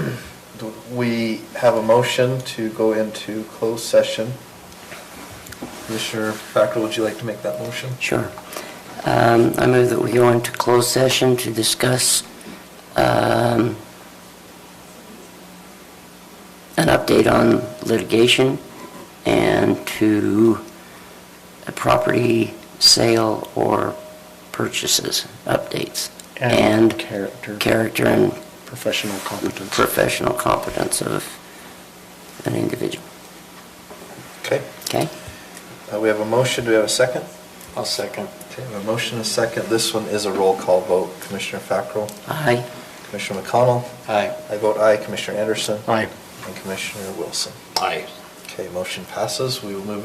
we have a motion to go into closed session. Commissioner Fackrell, would you like to make that motion? Sure. Um, I move that we go into closed session to discuss um, an update on litigation and to a property sale or purchases updates. And character. Character and Professional competence. professional competence of an individual. Okay, Okay? uh, we have a motion, do we have a second? I'll second. Okay, we have a motion and a second. This one is a roll call vote. Commissioner Fackrell, Aye. Commissioner McConnell, Aye. I vote aye. Commissioner Anderson? Aye. And Commissioner Wilson. Aye. Okay, motion passes. We will move